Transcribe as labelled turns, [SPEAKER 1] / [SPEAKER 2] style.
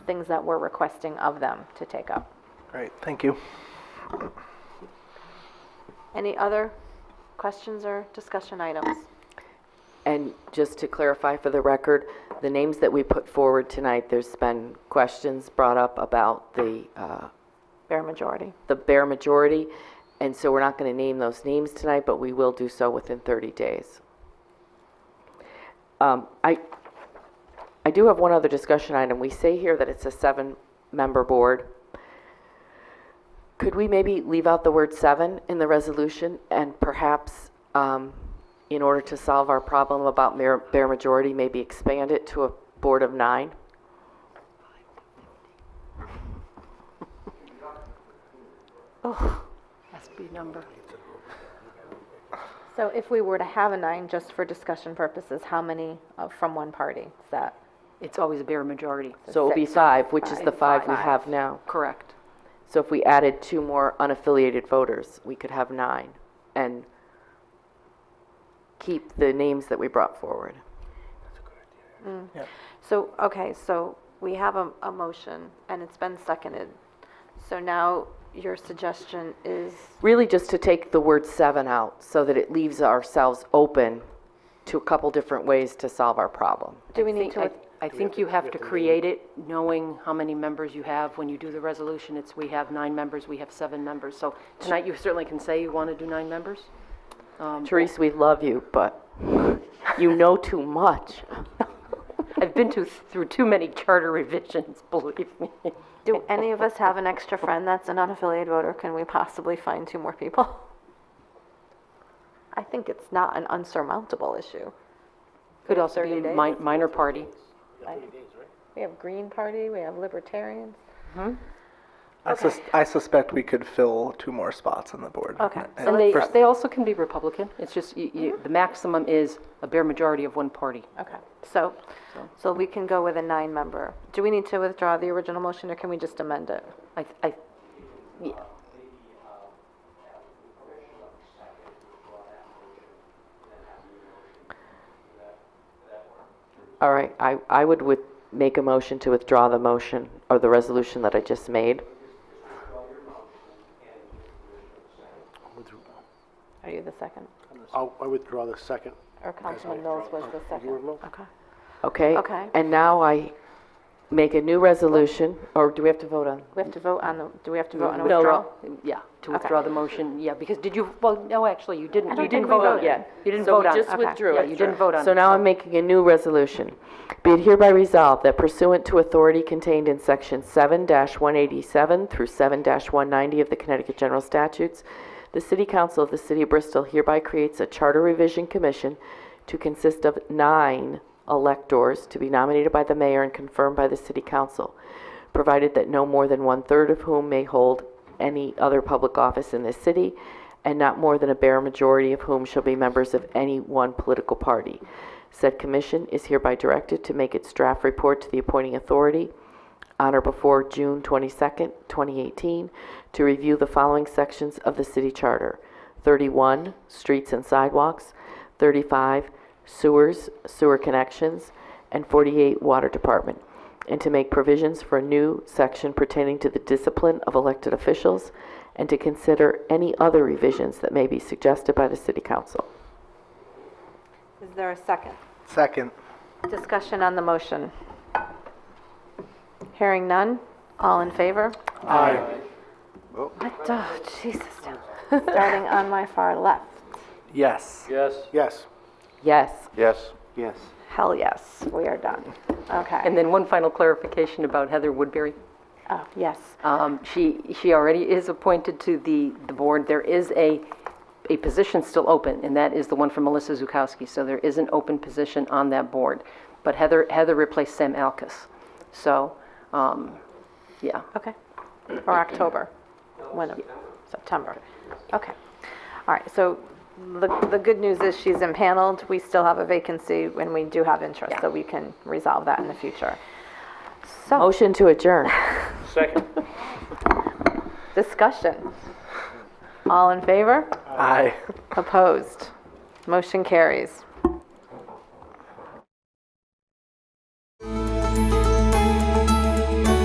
[SPEAKER 1] things that we're requesting of them to take up.
[SPEAKER 2] Great, thank you.
[SPEAKER 1] Any other questions or discussion items?
[SPEAKER 3] And just to clarify for the record, the names that we put forward tonight, there's been questions brought up about the, uh,
[SPEAKER 1] Fair majority.
[SPEAKER 3] the bare majority, and so we're not going to name those names tonight, but we will do so within 30 days. Um, I, I do have one other discussion item. We say here that it's a seven-member board. Could we maybe leave out the word seven in the resolution and perhaps, um, in order to solve our problem about mere- bare majority, maybe expand it to a board of nine?
[SPEAKER 1] So if we were to have a nine, just for discussion purposes, how many uh, from one party is that?
[SPEAKER 4] It's always a bare majority.
[SPEAKER 3] So it'll be
[SPEAKER 1] Six.
[SPEAKER 3] five, which is the
[SPEAKER 1] Five.
[SPEAKER 3] five we have now.
[SPEAKER 4] Correct.
[SPEAKER 3] So if we added two more unaffiliated voters, we could have nine and keep the names that we brought forward.
[SPEAKER 1] So, okay, so we have a, a motion and it's been seconded. So now your suggestion is,
[SPEAKER 3] Really just to take the word seven out so that it leaves ourselves open to a couple different ways to solve our problem.
[SPEAKER 1] do we
[SPEAKER 4] I
[SPEAKER 1] need
[SPEAKER 4] think-
[SPEAKER 1] to,
[SPEAKER 4] I I think you have to create it knowing how many members you have. When you do the resolution, it's, we have nine members, we have seven members. So tonight, you certainly can say you want to do nine members.
[SPEAKER 3] Therese, we love you, but you know too much.
[SPEAKER 4] I've been to, through too many charter revisions, believe me.
[SPEAKER 1] do any of us have an extra friend that's an unaffiliated voter? Can we possibly find two more people? I think it's not an unsurmountable issue.
[SPEAKER 4] Could also be
[SPEAKER 1] 30 days.
[SPEAKER 4] mi- minor party.
[SPEAKER 1] We have Green Party, we have Libertarians.
[SPEAKER 2] I sus- I suspect we could fill two more spots on the board.
[SPEAKER 1] Okay.
[SPEAKER 2] And
[SPEAKER 4] And they,
[SPEAKER 2] for-
[SPEAKER 4] they also can be Republican. It's just, you- you- the maximum is a bare majority of one party.
[SPEAKER 1] Okay, so, so we can go with a nine-member. Do we need to withdraw the original motion, or can we just amend it?
[SPEAKER 4] I, I, yeah.
[SPEAKER 3] All right, I, I would with, make a motion to withdraw the motion or the resolution that I just made.
[SPEAKER 1] Are you the second?
[SPEAKER 5] I'll- I withdraw the second.
[SPEAKER 1] Or Councilman Mills was the second? Okay.
[SPEAKER 3] Okay?
[SPEAKER 1] Okay.
[SPEAKER 3] And now I make a new resolution, or do we have to vote on?
[SPEAKER 1] We have to vote on the, do we have to vote on a
[SPEAKER 4] No,
[SPEAKER 1] withdrawal?
[SPEAKER 4] no, Yeah, to withdraw the motion, yeah, because did you, well, no, actually, you didn't, you
[SPEAKER 1] think
[SPEAKER 4] didn't
[SPEAKER 1] we
[SPEAKER 4] vote on
[SPEAKER 1] voted.
[SPEAKER 4] it. You didn't vote on it.
[SPEAKER 3] So we just
[SPEAKER 4] Okay.
[SPEAKER 3] withdrew
[SPEAKER 4] Yeah,
[SPEAKER 3] it.
[SPEAKER 4] you didn't vote on it.
[SPEAKER 3] So now I'm making a new resolution. Be it hereby resolved that pursuant to authority contained in Section 7-187 through 7-190 of the Connecticut General Statutes, the City Council of the City of Bristol hereby creates a Charter Revision Commission to consist of nine electors to be nominated by the mayor and confirmed by the City Council, provided that no more than one-third of whom may hold any other public office in this city, and not more than a bare majority of whom shall be members of any one political party. Said commission is hereby directed to make its draft report to the appointing authority on or before June 22nd, 2018, to review the following sections of the city charter: 31, streets and sidewalks, 35, sewers, sewer connections, and 48, water department, and to make provisions for a new section pertaining to the discipline of elected officials, and to consider any other revisions that may be suggested by the city council.
[SPEAKER 1] Is there a second?
[SPEAKER 2] Second.
[SPEAKER 1] Discussion on the motion? Hearing none, all in favor? Aye. What, the- oh, Jesus. Starting on my far left.
[SPEAKER 2] Yes.
[SPEAKER 5] Yes.
[SPEAKER 2] Yes.
[SPEAKER 3] Yes,
[SPEAKER 5] Yes. Yes.
[SPEAKER 1] Hell yes, we are done. Okay.
[SPEAKER 4] And then one final clarification about Heather Woodbury.
[SPEAKER 1] Oh, yes.
[SPEAKER 4] Um, She, she already is appointed to the, the board. There is a, a position still open, and that is the one for Melissa Zukowski. So there is an open position on that board. But Heather, Heather replaced Sam Alkus. So, um, yeah.
[SPEAKER 1] Okay. Or October, when, September. Okay. All right, so the, the good news is she's impaneled. We still have a vacancy and we do have interest, so we can resolve that in the future. So,
[SPEAKER 3] motion to adjourn.
[SPEAKER 5] Second.
[SPEAKER 1] discussion. All in favor?
[SPEAKER 2] Aye.
[SPEAKER 1] Opposed? Motion carries.